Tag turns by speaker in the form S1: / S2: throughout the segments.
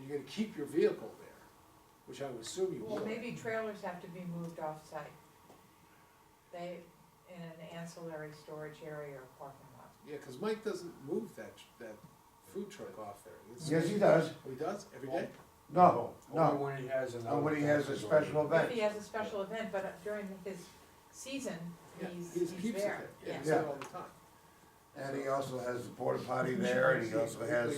S1: you're gonna keep your vehicle there, which I would assume you
S2: Well,
S1: would.
S2: maybe trailers have to be moved off-site. They, in an ancillary storage area or parking lot.
S1: Yeah, cause Mike doesn't move that, that food truck off there. It's-
S3: Yes, he does.
S1: He does, every day?
S3: No,
S4: Only
S3: no.
S4: when he has an.
S3: Only when he has a special
S2: If
S3: event.
S2: he has a special event, but during his season,
S1: Yeah,
S2: he's,
S1: he
S2: he's
S1: just keeps it
S2: there,
S1: there.
S2: yeah.
S1: He's there all the time.
S3: And he also has the porta potty there and he also has,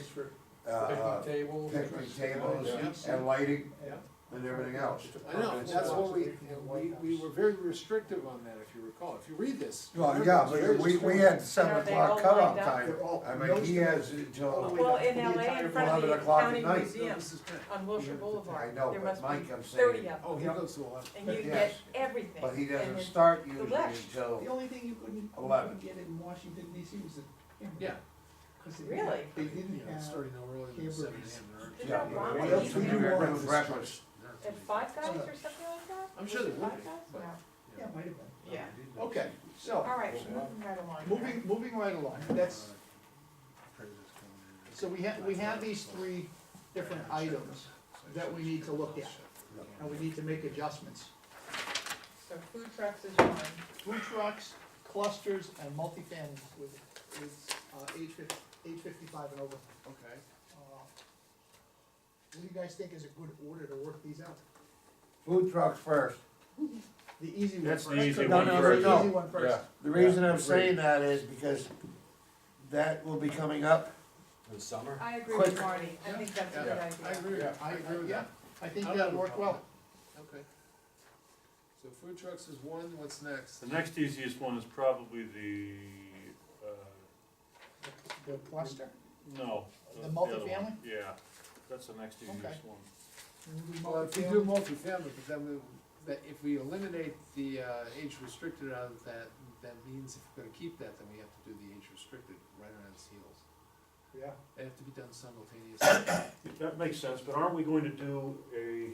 S3: uh,
S4: Picnic table.
S3: picnic tables
S1: Yeah.
S3: and lighting
S1: Yeah,
S3: and everything else.
S1: I know, that's what we, we, we were very restrictive on that, if you recall, if you read this.
S3: Well,
S1: remember,
S3: yeah,
S1: it's very
S3: but we, we
S1: restrictive.
S3: had seven
S2: Are they all
S3: o'clock cutoff
S2: lined up?
S3: time. I mean, he has until,
S2: Well, in LA, in front of the
S3: 11 o'clock at
S2: county
S3: night.
S1: No,
S2: museum
S1: this is bad.
S2: on Wilshire Boulevard,
S3: I know,
S2: there
S3: but
S2: must
S3: Mike,
S2: be
S3: I'm saying-
S2: thirty of
S1: Oh, he
S2: them.
S1: goes to a lot.
S2: And you get
S3: Yes.
S2: everything.
S3: but he
S2: And
S3: doesn't
S2: it's-
S3: start usually
S2: left.
S3: until,
S5: The only thing you couldn't, you
S3: Eleven.
S5: couldn't get in Washington DC was a camper.
S1: Yeah.
S5: 'Cause they-
S2: Really?
S5: They
S1: You
S5: didn't
S1: know, it's
S5: have,
S1: starting no earlier than
S5: Hamburgers.
S1: seven AM.
S2: There's
S3: yeah.
S2: no wrong
S3: we
S2: with
S3: don't
S2: these
S3: do
S2: things.
S3: breakfast. breakfast.
S2: At Five Guys or something like that?
S1: I'm sure they
S2: Five
S1: would be,
S2: Guys?
S1: but-
S2: No.
S5: yeah, might have been.
S2: Yeah.
S5: Okay, so,
S2: All right, moving right along.
S5: moving, moving right along, that's, so we have, we have these three different items that we need to look at, and we need to make adjustments.
S2: So food trucks is one,
S5: Food trucks, clusters, and multifamilies with, is, uh, age fif- age fifty-five and over.
S1: Okay.
S5: Uh, What do you guys think is a good order to work these out?
S3: Food trucks first.
S5: The easy one
S6: That's
S5: first.
S6: the easy
S3: No,
S6: one
S3: no,
S6: first.
S3: no.
S5: The easy one first.
S3: The reason I'm saying that is because that will be coming up.
S4: In summer?
S2: I agree with
S3: Quick.
S2: Marty, I think that's a good
S1: Yeah, I
S2: idea.
S1: agree, with-
S4: Yeah.
S1: I agree with
S5: Yeah.
S1: that,
S5: I think
S1: I'll
S5: that
S1: go
S5: worked
S1: with
S5: well.
S1: okay. So food trucks is one, what's next?
S6: The next easiest one is probably the, uh,
S5: The cluster,
S6: no.
S5: The
S6: other one.
S5: multifamily?
S6: Yeah, that's the next easiest one.
S1: Well, if you do multifamily, but then we, that if we eliminate the, uh, age restricted out of that, that means if we're gonna keep that, then we have to do the age restricted right around its heels.
S5: Yeah.
S1: They have to be done simultaneously.
S6: That makes sense, but aren't we going to do a,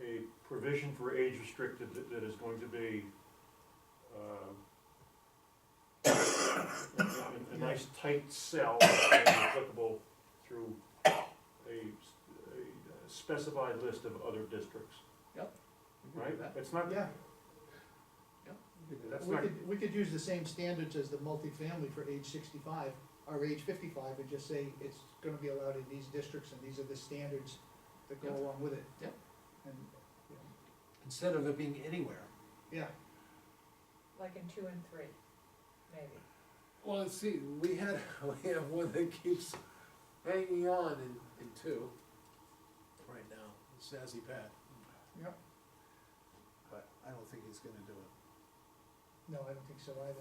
S6: a provision for age restricted that, that is going to be, um, a- a, a nice tight cell and applicable through a, s- a specified list of other districts,
S1: We can
S6: right?
S1: do that.
S6: It's not,
S5: Yeah,
S1: We can do that.
S6: that's
S5: we
S6: not,
S5: could, we could use the same standards as the multifamily for age sixty-five, or age fifty-five, and just say it's gonna be allowed in these districts, and these are the standards that go
S1: Yeah.
S5: along with it.
S1: Yep.
S5: And,
S1: Instead of it being anywhere.
S5: yeah,
S2: Like in two and three, maybe.
S1: Well, let's see, we had, we have one that keeps hanging on in, in two, right now, Sassy Pat.
S5: Yep.
S1: But I don't think he's gonna do it.
S5: no, I don't think so either.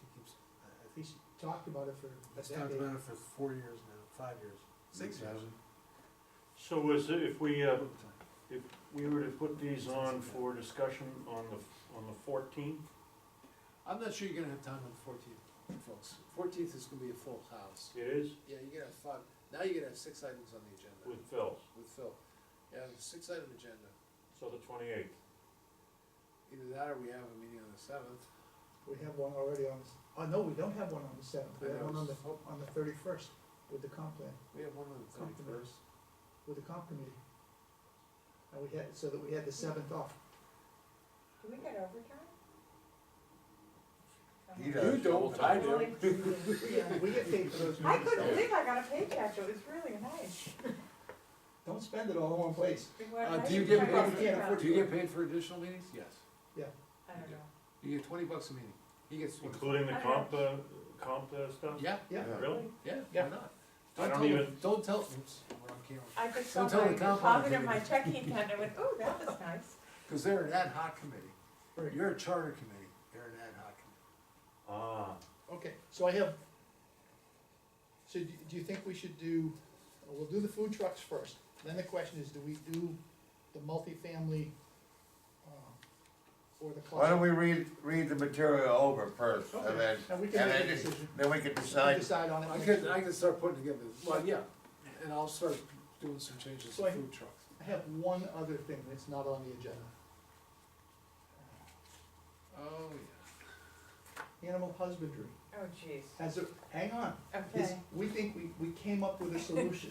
S1: He keeps, I- I think
S5: He's talked about it for
S1: Let's
S5: a
S1: talk
S5: decade.
S1: about it for four years now, five years. Six years.
S6: so is it, if we, uh, If we were to put these on for discussion on the, on the fourteenth,
S1: I'm not sure you're gonna have time on the fourteenth, folks. Fourteenth is gonna be a full house.
S6: it is
S1: Yeah, you're gonna have five, now you're gonna have six items on the agenda
S6: with Phil's,
S1: with Phil. Yeah, six item agenda.
S6: so the twenty-eighth.
S1: Either that or we have a meeting on the seventh.
S5: We have one already on, the s- oh, no, we don't have one on the seventh, we
S1: I
S5: have
S1: know.
S5: one on the, on the thirty-first, with the comp plan,
S1: We have one on the
S5: Something.
S1: thirty-first.
S5: with the comp committee. And we had, so that we had the seventh off.
S2: Do we get overtime?
S3: He
S2: Uh-huh.
S3: does.
S1: You don't, I do.
S2: Yeah.
S5: We get paid for those
S2: I
S5: meetings,
S2: couldn't
S5: though.
S2: believe I got a paycheck, it was really nice.
S5: Don't spend it all in one place.
S1: Uh, do you get paid- Do you get paid for additional meetings? Yes.
S2: I don't know.
S1: You get twenty bucks a meeting. He gets twenty.
S6: Including the comp, uh, comp uh, stuff?
S1: Yeah,
S5: Yeah.
S6: Really?
S1: yeah,
S5: Yeah.
S1: why not?
S6: I
S1: Don't
S6: don't
S1: tell,
S6: even-
S1: them- don't tell, oops, we're on camera.
S2: I just saw
S1: Don't tell
S2: my
S1: the comp
S2: deposit in
S1: on the
S2: my checking account, and I went, ooh, that was nice.
S1: Cause they're an ad hoc committee.
S5: Right.
S1: You're a charter committee. They're an ad hoc committee.
S6: Ah,
S5: Okay, so I have, so do, do you think we should do, well, we'll do the food trucks first, then the question is, do we do the multifamily, um, or the
S3: Why don't
S5: cluster?
S3: we read, read the material over first and then,
S5: Okay, and we can
S3: and
S5: make a
S3: then,
S5: decision,
S3: then we can
S5: We can
S3: decide.
S5: decide on it.
S1: I
S5: next
S1: could,
S5: week.
S1: I could start putting together, well, yeah, and I'll start doing some changes
S5: So
S1: to
S5: I-
S1: food trucks.
S5: I have one other thing that's not on the agenda,
S1: Oh, yeah.
S5: animal husbandry,
S2: Oh, jeez,
S5: has a, hang on, this,
S2: okay.
S5: we think we, we came up with a solution.